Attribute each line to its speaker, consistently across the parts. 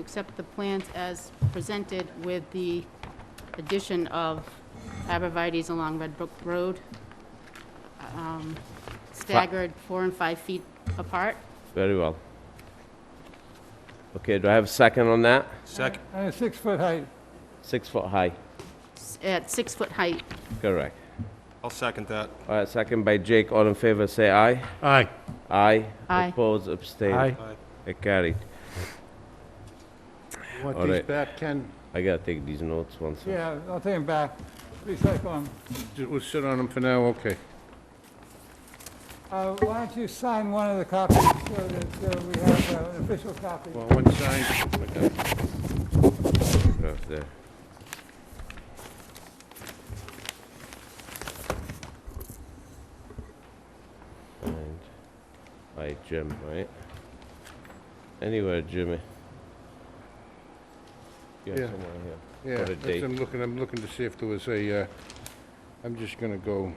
Speaker 1: accept the plans as presented with the addition of arborvitae's along Red Brook Road, um, staggered four and five feet apart.
Speaker 2: Very well. Okay, do I have a second on that?
Speaker 3: Second.
Speaker 4: And a six-foot height.
Speaker 2: Six foot high,
Speaker 1: s- at six-foot height.
Speaker 2: correct.
Speaker 3: I'll second that.
Speaker 2: All right, second by Jake, all in favor, say aye.
Speaker 5: Aye.
Speaker 2: Aye.
Speaker 1: Aye.
Speaker 2: Oppose, abstain.
Speaker 5: Aye.
Speaker 3: Aye.
Speaker 2: It carried.
Speaker 5: Want
Speaker 2: All
Speaker 5: these
Speaker 2: right.
Speaker 5: back, Ken?
Speaker 2: I gotta take these notes once.
Speaker 4: Yeah, I'll take him back. Recycle him.
Speaker 5: Ju- We'll sit on them for now, okay.
Speaker 4: Uh, Why don't you sign one of the copies so that uh, we have uh, an official copy?
Speaker 5: Well, one signed. okay.
Speaker 2: Right there. And by Jim, right? Anywhere, Jimmy. Yeah,
Speaker 5: Yeah.
Speaker 2: somewhere here.
Speaker 5: Yeah,
Speaker 2: a
Speaker 5: that's-
Speaker 2: date.
Speaker 5: I'm looking, I'm looking to see if there was a, uh, I'm just gonna go,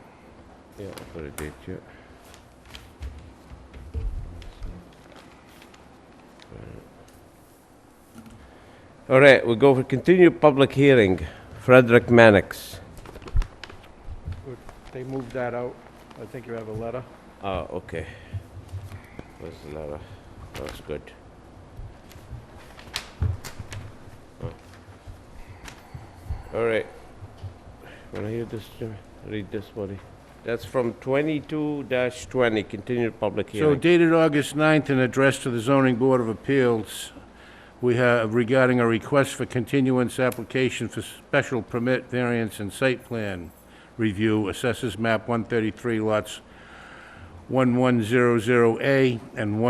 Speaker 2: Yeah, I'll put a date here. All right, we go for continued public hearing. Frederick Mannix.
Speaker 6: They moved that out. I think you have a letter.
Speaker 2: Ah, okay. Where's the letter? That's good. Oh. All right. Wanna hear this, Jimmy? Read this, buddy. That's from twenty-two dash twenty, continued public
Speaker 5: so
Speaker 2: hearing.
Speaker 5: dated August 9th and addressed to the zoning board of appeals, we have regarding a request for continuance application for special permit variance and site plan review, assesses map 133 lots 1100A and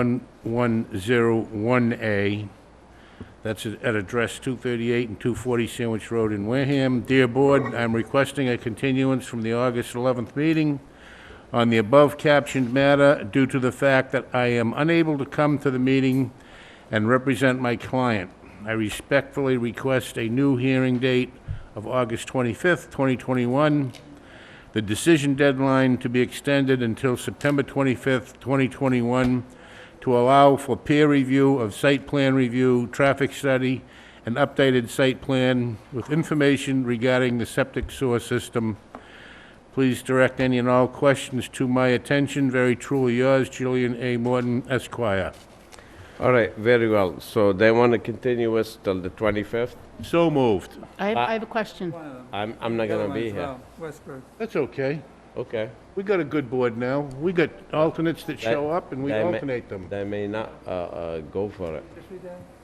Speaker 5: 1101A. That's at at address 238 and 240 Sandwich Road in Wareham. Dear Board, I'm requesting a continuance from the August 11th meeting on the above captioned matter due to the fact that I am unable to come to the meeting and represent my client. I respectfully request a new hearing date of August 25th, 2021, the decision deadline to be extended until September 25th, 2021, to allow for peer review of site plan review, traffic study, and updated site plan with information regarding the septic sewer system. Please direct any and all questions to my attention. Very truly yours, Julian A. Morton, Esquire.
Speaker 2: All right, very well. So they wanna continue us till the twenty-fifth?
Speaker 5: So moved.
Speaker 1: I have, I have a question.
Speaker 4: One of them.
Speaker 2: I'm, I'm not
Speaker 4: The other
Speaker 2: gonna be
Speaker 4: one's,
Speaker 2: here.
Speaker 4: uh, Westbrook.
Speaker 5: That's okay.
Speaker 2: Okay.
Speaker 5: We got a good board now. We got alternates that
Speaker 2: They-
Speaker 5: show up and we
Speaker 2: they may-
Speaker 5: alternate them.
Speaker 2: They may not, uh, uh, go for it.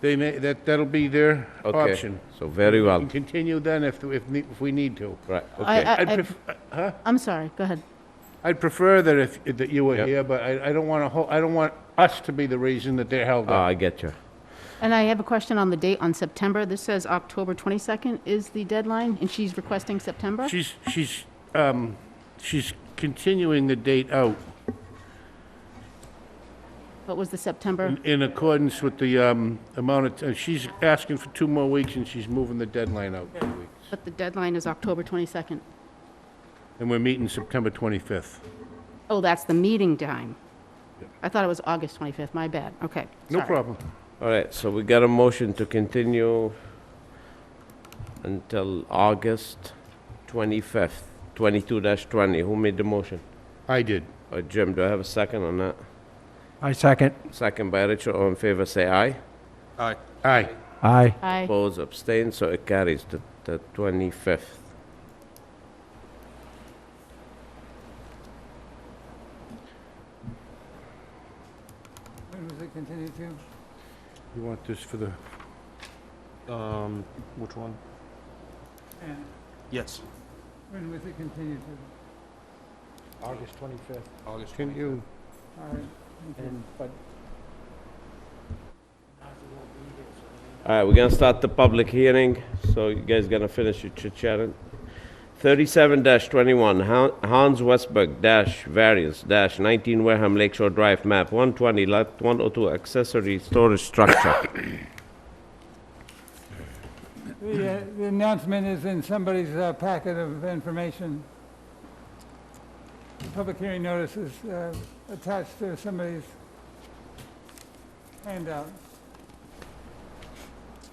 Speaker 5: They may, that, that'll be their
Speaker 2: Okay,
Speaker 5: option.
Speaker 2: So very
Speaker 5: We
Speaker 2: well,
Speaker 5: can continue then if, if, ne- if we need to.
Speaker 2: right,
Speaker 1: I-
Speaker 2: okay.
Speaker 1: I-
Speaker 5: I'd
Speaker 1: I-
Speaker 5: pref, huh?
Speaker 1: I'm sorry, go ahead.
Speaker 5: I'd prefer that if, that you were
Speaker 2: Yep.
Speaker 5: here, but I, I don't wanna, ho- I don't want us to be the reason that they're held
Speaker 2: Ah,
Speaker 5: up.
Speaker 2: I get you.
Speaker 1: And I have a question on the date on September. This says October 22nd is the deadline, and she's requesting
Speaker 2: Ah.
Speaker 1: September?
Speaker 5: She's, she's, um, she's continuing the date out.
Speaker 1: What was the September?
Speaker 5: In accordance with the um, amount of, ti- she's asking for two more weeks, and she's moving the deadline out two weeks.
Speaker 1: But the deadline is October 22nd.
Speaker 5: And we're meeting September 25th.
Speaker 1: Oh, that's the meeting time. I thought it was August 25th, my bad, okay.
Speaker 5: No
Speaker 1: sorry.
Speaker 5: problem.
Speaker 2: All right, so we got a motion to continue until August 25th, 22-20. Who made the motion?
Speaker 5: I did.
Speaker 2: Uh, Jim, do I have a second on that?
Speaker 3: I second.
Speaker 2: Second by Richard, all in favor, say aye.
Speaker 3: Aye.
Speaker 5: Aye.
Speaker 3: Aye.
Speaker 1: Aye.
Speaker 2: Oppose, abstain, so it carries to the 25th.
Speaker 4: When was it continued to?
Speaker 5: You want this for the,
Speaker 3: Um, which one?
Speaker 4: And
Speaker 3: Yes.
Speaker 4: when was it continued to?
Speaker 6: August 25th.
Speaker 3: August
Speaker 5: can you,
Speaker 4: All right. okay.
Speaker 6: And, but
Speaker 2: All right, we're gonna start the public hearing, so you guys gonna finish your chit-chatting. 37-21, Han- Hans Westberg dash variance dash 19 Wareham Lakeshore Drive, map 120, lot 102, accessory storage structure.
Speaker 4: The uh, the announcement is in somebody's uh, packet of information. Public hearing notice is uh, attached to somebody's handout.